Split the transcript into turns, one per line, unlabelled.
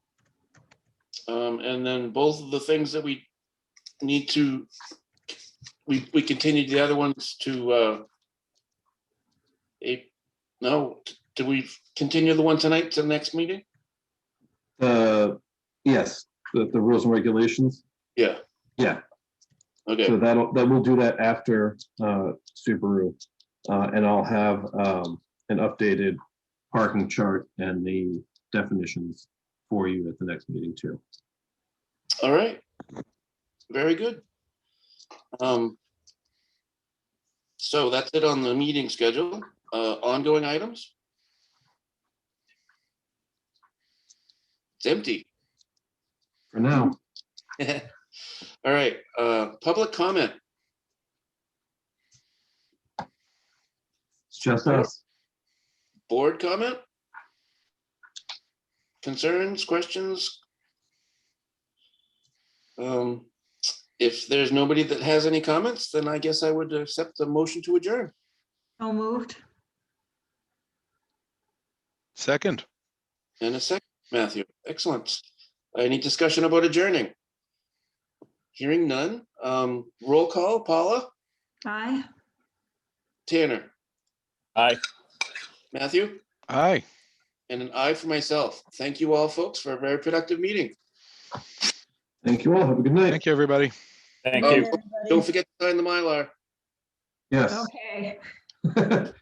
Um, and then both of the things that we need to, we, we continued the other ones to, uh, a- no, did we continue the one tonight to the next meeting?
Uh, yes, the, the rules and regulations.
Yeah.
Yeah.
Okay,
So that'll, that will do that after, uh, Subaru. Uh, and I'll have, um, an updated parking chart and the definitions for you at the next meeting too.
all right. Very good. Um, so that's it on the meeting schedule. Uh, ongoing items? It's empty.
For now,
All right, uh, public comment.
it's just us.
Board comment? Concerns, questions? Um, If there's nobody that has any comments, then I guess I would accept the motion to adjourn.
So moved.
Second,
And a second, Matthew, excellent. Any discussion about adjourning? Hearing none, um, roll call, Paula,
Aye.
Tanner,
Aye.
Matthew,
aye.
and an I for myself. Thank you all, folks, for a very productive meeting.
Thank you all. Have a good night.
Thank you, everybody.
Thank
Oh,
you.
Don't forget to sign the Mylar.
Yes.
Okay.